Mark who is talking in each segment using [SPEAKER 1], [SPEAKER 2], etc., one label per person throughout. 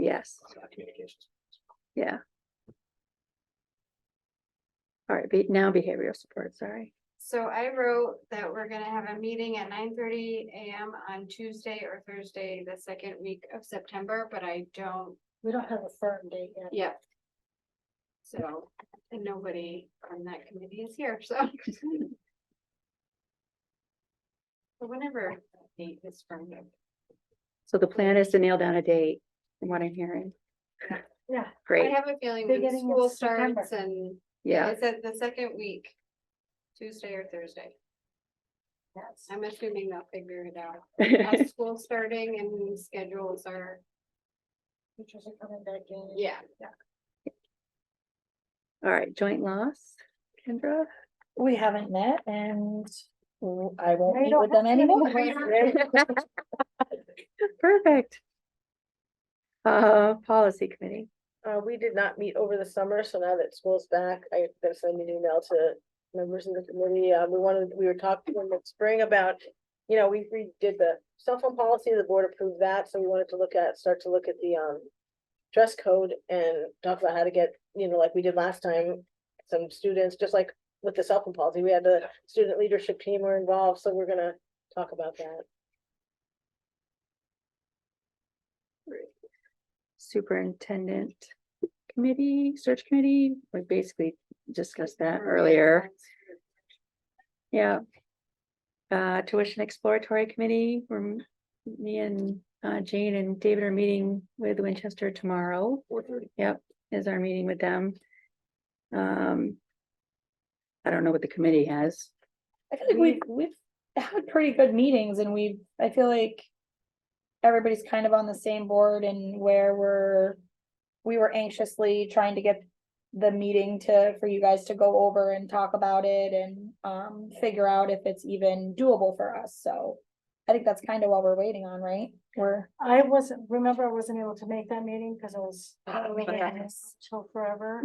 [SPEAKER 1] Yes,
[SPEAKER 2] Communications.
[SPEAKER 1] yeah. All right, be, now behavioral support, sorry.
[SPEAKER 3] So I wrote that we're gonna have a meeting at nine thirty AM on Tuesday or Thursday, the second week of September, but I don't,
[SPEAKER 4] We don't have a firm date yet.
[SPEAKER 3] yeah. So, and nobody from that committee is here, so. But Whenever that date is from them.
[SPEAKER 1] So the plan is to nail down a date, from what I'm hearing.
[SPEAKER 4] Yeah.
[SPEAKER 3] I
[SPEAKER 1] Great,
[SPEAKER 3] have a feeling when
[SPEAKER 4] Beginning of
[SPEAKER 3] school
[SPEAKER 4] September.
[SPEAKER 3] starts and
[SPEAKER 1] yeah,
[SPEAKER 3] it's at the second week, Tuesday or Thursday.
[SPEAKER 4] Yes.
[SPEAKER 3] I'm assuming they'll figure it out. As school starting and schedules are
[SPEAKER 4] Teachers are coming back in.
[SPEAKER 3] Yeah,
[SPEAKER 1] all right, joint loss, Kendra?
[SPEAKER 5] We haven't met and w- I won't
[SPEAKER 4] They
[SPEAKER 5] meet
[SPEAKER 4] don't
[SPEAKER 5] with them
[SPEAKER 4] have to meet
[SPEAKER 5] anymore.
[SPEAKER 1] Perfect. Uh, policy committee,
[SPEAKER 5] Uh, we did not meet over the summer, so now that school's back, I gotta send an email to members of the committee. Uh, we wanted, we were talking in the spring about. You know, we redid the cell phone policy, the board approved that, so we wanted to look at, start to look at the um. Dress code and talk about how to get, you know, like we did last time, some students, just like with the cell phone policy, we had the student leadership team were involved, so we're gonna talk about that.
[SPEAKER 1] superintendent committee, search committee, we basically discussed that earlier. Yeah. Uh, tuition exploratory committee, we're, m- me and, uh, Jane and David are meeting with Winchester tomorrow.
[SPEAKER 2] Four thirty.
[SPEAKER 1] Yep, is our meeting with them. Um. I don't know what the committee has.
[SPEAKER 5] I feel like we've, we've had pretty good meetings and we've, I feel like. Everybody's kind of on the same board and where we're, we were anxiously trying to get. The meeting to, for you guys to go over and talk about it and, um, figure out if it's even doable for us, so. I think that's kind of what we're waiting on, right? We're,
[SPEAKER 4] I wasn't, remember I wasn't able to make that meeting because I was. Halloween
[SPEAKER 6] okay.
[SPEAKER 4] and it's Till forever.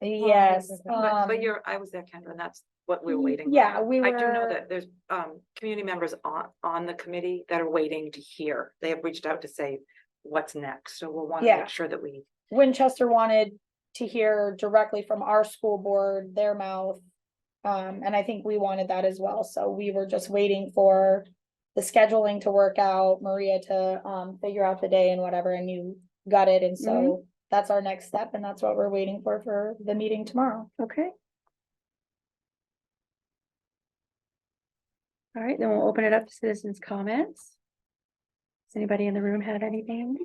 [SPEAKER 5] yes,
[SPEAKER 6] But, but
[SPEAKER 5] um,
[SPEAKER 6] you're, I was there, Kendra, and that's what we we're waiting. for.
[SPEAKER 5] yeah, we
[SPEAKER 6] I do know
[SPEAKER 5] were-
[SPEAKER 6] that there's, um, community members on, on the committee that are waiting to hear. They have reached out to say what's next, so we'll want to
[SPEAKER 5] Yeah.
[SPEAKER 6] make sure that we.
[SPEAKER 5] Winchester wanted to hear directly from our school board, their mouth. Um, and I think we wanted that as well, so we were just waiting for the scheduling to work out, Maria to, um, figure out the day and whatever, and you got it, and
[SPEAKER 7] Mm-hmm.
[SPEAKER 5] so that's our next step, and that's what we're waiting for, for the meeting tomorrow.
[SPEAKER 1] Okay. All right, then we'll open it up to citizens' comments. Does anybody in the room have anything?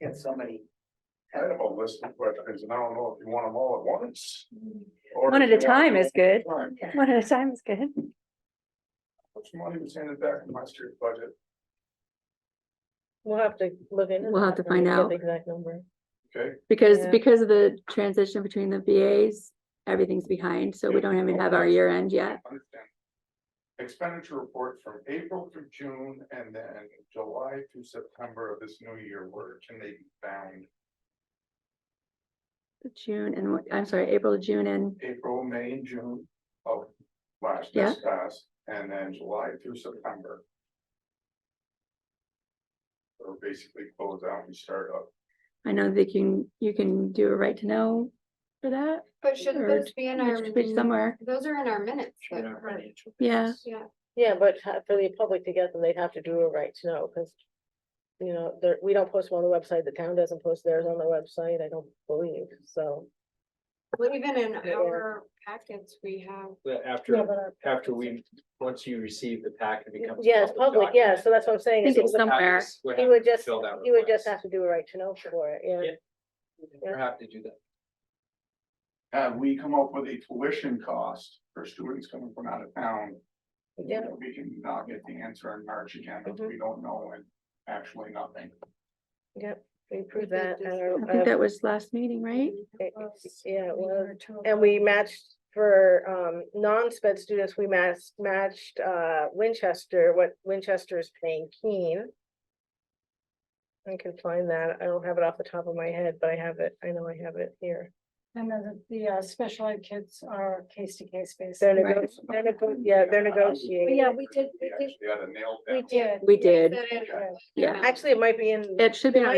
[SPEAKER 2] Get so many.
[SPEAKER 8] I have a list of questions and I don't know if you want them all at once. or
[SPEAKER 1] One
[SPEAKER 8] if
[SPEAKER 1] at a
[SPEAKER 8] you want
[SPEAKER 1] time is good.
[SPEAKER 8] them all at a time.
[SPEAKER 1] One at a time is good.
[SPEAKER 8] How much money was handed back in last year's budget?
[SPEAKER 5] We'll have to look into.
[SPEAKER 1] We'll have
[SPEAKER 5] that
[SPEAKER 1] to
[SPEAKER 5] when
[SPEAKER 1] find
[SPEAKER 5] we get
[SPEAKER 1] out.
[SPEAKER 5] The exact number.
[SPEAKER 8] Okay,
[SPEAKER 1] Because,
[SPEAKER 5] Yeah.
[SPEAKER 1] because of the transition between the VAs, everything's behind, so we don't even have our year end yet.
[SPEAKER 8] understand. Expenditure report from April through June and then July through September of this new year, where can they be found?
[SPEAKER 1] June and, what- I'm sorry, April, June and,
[SPEAKER 8] April, May, and June of last
[SPEAKER 1] Yeah.
[SPEAKER 8] year's past, and then July through September. Or basically close out and start up.
[SPEAKER 1] I know that you can, you can do a right to know for that.
[SPEAKER 3] but should
[SPEAKER 1] Or
[SPEAKER 3] those be in our,
[SPEAKER 1] which- which
[SPEAKER 3] min-
[SPEAKER 1] Somewhere,
[SPEAKER 3] those are in our minutes,
[SPEAKER 2] you
[SPEAKER 3] but-
[SPEAKER 2] know, financial
[SPEAKER 1] Yeah.
[SPEAKER 2] things.
[SPEAKER 3] yeah,
[SPEAKER 5] Yeah, but ha- for the public to get them, they'd have to do a right to know, because. You know, there, we don't post them on the website, the town doesn't post theirs on the website, I don't believe, so.
[SPEAKER 3] well, even in
[SPEAKER 2] Yeah.
[SPEAKER 3] our packets, we have.
[SPEAKER 2] But
[SPEAKER 4] Yeah,
[SPEAKER 2] after,
[SPEAKER 4] but our-
[SPEAKER 2] after we, once you receive the pack, it becomes.
[SPEAKER 5] Yeah, it's public, yeah, so that's what I'm
[SPEAKER 1] I
[SPEAKER 5] saying.
[SPEAKER 1] think
[SPEAKER 5] is
[SPEAKER 1] it's
[SPEAKER 5] it would-
[SPEAKER 1] somewhere.
[SPEAKER 5] He would just, he would just have to do a right to know for it, yeah.
[SPEAKER 2] Yeah.
[SPEAKER 5] yeah.
[SPEAKER 2] We're happy to do that.
[SPEAKER 8] Have we come up with a tuition cost for students coming from out of town?
[SPEAKER 5] Yeah. Mm-hmm.
[SPEAKER 8] that We can not get the answer in March again, if we don't know and actually nothing.
[SPEAKER 5] We approved
[SPEAKER 3] We did
[SPEAKER 5] that. at
[SPEAKER 3] this.
[SPEAKER 5] our-
[SPEAKER 1] I think that
[SPEAKER 5] uh,
[SPEAKER 1] was last meeting, right?
[SPEAKER 5] it- Yeah, it
[SPEAKER 4] we
[SPEAKER 5] was,
[SPEAKER 4] were told-
[SPEAKER 5] and we matched for, um, non-sped students, we matched, matched, uh, Winchester, what Winchester is paying Keene. I can find that, I don't have it off the top of my head, but I have it, I know I have it here.
[SPEAKER 7] And then the, the, uh, special ed kids are case to case basis.
[SPEAKER 5] They're
[SPEAKER 1] Right.
[SPEAKER 5] nego- they're nego- yeah, they're
[SPEAKER 7] But
[SPEAKER 5] negotiating.
[SPEAKER 7] yeah, we did, we did,
[SPEAKER 8] actually had a nail down.
[SPEAKER 7] we did.
[SPEAKER 1] We did,
[SPEAKER 3] That is-
[SPEAKER 1] yeah.
[SPEAKER 5] Actually, it might be in.
[SPEAKER 1] It should be on